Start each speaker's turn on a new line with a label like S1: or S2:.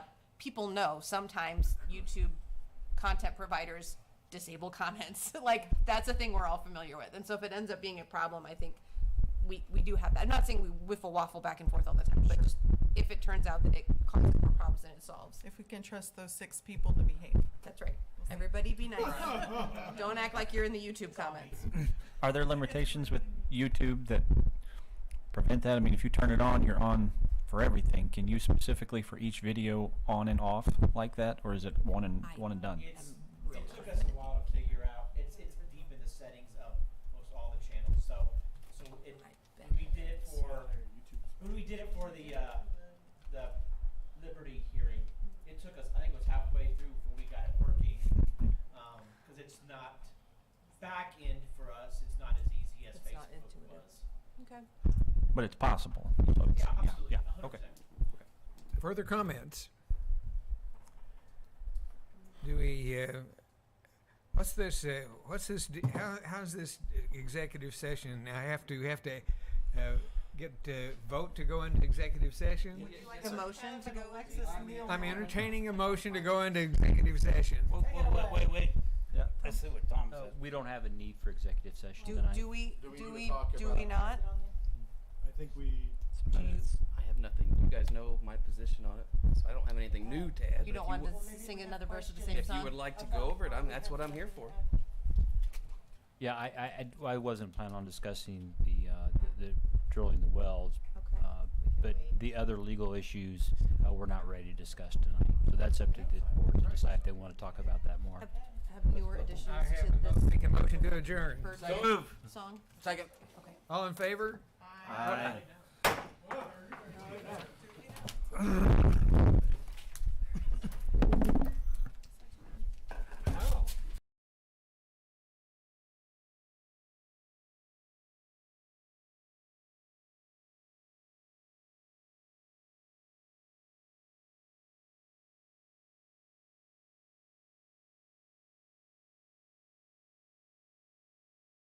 S1: people know sometimes YouTube content providers disable comments. like that's a thing we're all familiar with. And so if it ends up being a problem, I think we, we do have that. I'm not saying we whiffle waffle back and forth all the time, but just if it turns out that it causes more problems than it solves.
S2: If we can trust those six people to behave.
S1: That's right. Everybody be nice. Don't act like you're in the YouTube comments.
S3: Are there limitations with YouTube that prevent that? I mean, if you turn it on, you're on for everything. Can you specifically for each video on and off like that, or is it one and
S1: I-
S3: one and done?
S4: It's, it took us a while to figure out, it's, it's deep in the settings of most all the channels, so, so it, when we did it for, when we did it for the, uh, the Liberty hearing, it took us, I think it was halfway through before we got it working, um, cause it's not, back end for us, it's not as easy as
S1: It's not
S4: Facebook
S1: intuitive.
S4: was.
S1: Okay.
S3: But it's possible. So it's-
S4: Yeah, absolutely,
S3: Yeah.
S4: a hundred
S3: Okay.
S4: percent.
S5: Further comments? Do we, uh, what's this, uh, what's this, d- how, how's this executive session? I have to, have to, uh, get, uh, vote to go into executive session?
S1: Like a motion to go
S2: Alexis Neal.
S5: I'm entertaining a motion to go into executive session.
S6: Wait, wait, wait, wait, wait.
S3: Yeah.
S6: I see what Tom said.
S7: Uh, We don't have a need for executive session
S1: Do,
S7: tonight.
S1: do we,
S8: Do we
S1: do
S8: need to
S1: we,
S8: talk
S1: do
S8: about-
S1: we not?
S9: I think we
S1: Do you,
S7: I have nothing. You guys know my position on it, so I don't have anything new to add. but
S1: you don't
S7: if
S1: want to
S7: would-
S1: sing another verse of the same
S7: If you
S1: song?
S7: would like to go over it, I'm, that's what I'm here for.
S10: Yeah, I, I- I d- I wasn't planning on discussing the, uh, the the drilling the wells,
S1: Okay.
S10: uh, but the other legal issues, uh, we're not ready to discuss tonight. So that's up to the board to decide if they want to talk about that more.
S1: Have, have newer additions
S5: I
S1: to
S5: have a mo-
S1: this
S5: make a motion to adjourn.
S1: bird song?
S7: Second.
S1: Okay.
S5: All in favor?